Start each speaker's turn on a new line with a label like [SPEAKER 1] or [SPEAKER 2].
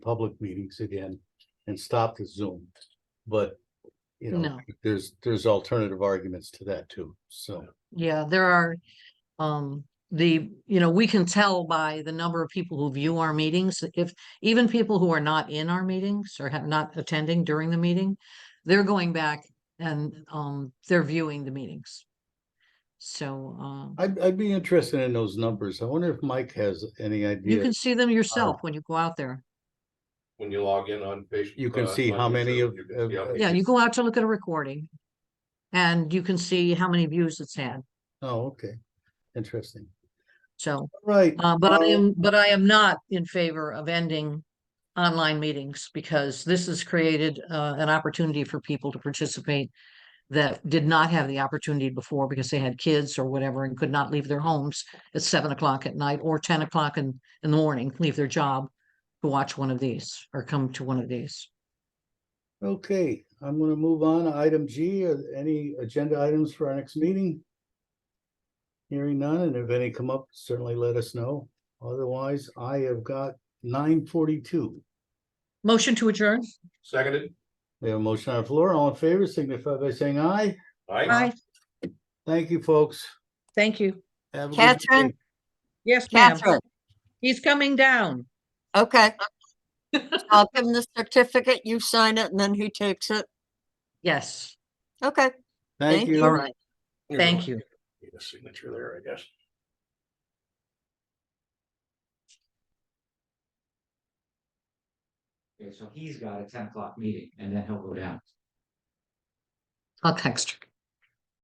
[SPEAKER 1] public meetings again and stop the Zoom. But, you know,
[SPEAKER 2] No,
[SPEAKER 1] there's, there's alternative arguments to that too, so.
[SPEAKER 2] yeah, there are, um, the, you know, we can tell by the number of people who view our meetings, if, even people who are not in our meetings or have not attending during the meeting, they're going back and, um, they're viewing the meetings. So, um,
[SPEAKER 1] I'd, I'd be interested in those numbers. I wonder if Mike has any
[SPEAKER 2] you
[SPEAKER 1] idea.
[SPEAKER 2] can see them yourself when you go out there.
[SPEAKER 3] when you log in on Facebook.
[SPEAKER 1] You can
[SPEAKER 3] uh,
[SPEAKER 1] see
[SPEAKER 3] on
[SPEAKER 1] how many
[SPEAKER 3] YouTube,
[SPEAKER 1] of-
[SPEAKER 3] you can see how
[SPEAKER 1] of-
[SPEAKER 3] many
[SPEAKER 2] Yeah, you
[SPEAKER 3] people-
[SPEAKER 2] go out to look at a recording and you can see how many views it's had.
[SPEAKER 1] Oh, okay, interesting.
[SPEAKER 2] So,
[SPEAKER 1] All Right.
[SPEAKER 2] Uh, but I
[SPEAKER 1] well,
[SPEAKER 2] am, but I am not in favor of ending online meetings because this has created uh, an opportunity for people to participate that did not have the opportunity before because they had kids or whatever and could not leave their homes at seven o'clock at night or ten o'clock in, in the morning, leave their job to watch one of these or come to one of these.
[SPEAKER 1] Okay, I'm gonna move on to item G. Are there Any agenda items for our next meeting? Hearing none, and if any come up, certainly let us know. Otherwise, I have got nine forty-two.
[SPEAKER 2] Motion to adjourn?
[SPEAKER 3] Seconded,
[SPEAKER 1] We have a motion on the floor. All in favor, signify by saying aye.
[SPEAKER 3] aye?
[SPEAKER 1] Thank you, folks.
[SPEAKER 2] Thank you.
[SPEAKER 1] Have a good
[SPEAKER 4] Catherine?
[SPEAKER 1] day.
[SPEAKER 2] Yes, ma'am.
[SPEAKER 4] Catherine,
[SPEAKER 2] He's coming down.
[SPEAKER 4] okay. I'll give him the certificate, you sign it, and then he takes it.
[SPEAKER 2] Yes,
[SPEAKER 4] Okay,
[SPEAKER 1] Thank
[SPEAKER 4] Thank
[SPEAKER 1] you.
[SPEAKER 4] you.
[SPEAKER 2] all right.
[SPEAKER 3] You're
[SPEAKER 2] Thank
[SPEAKER 3] going-
[SPEAKER 2] you.
[SPEAKER 3] Need a signature there, I guess.
[SPEAKER 5] Okay, so he's got a ten o'clock meeting and then he'll go down.
[SPEAKER 2] I'll text her.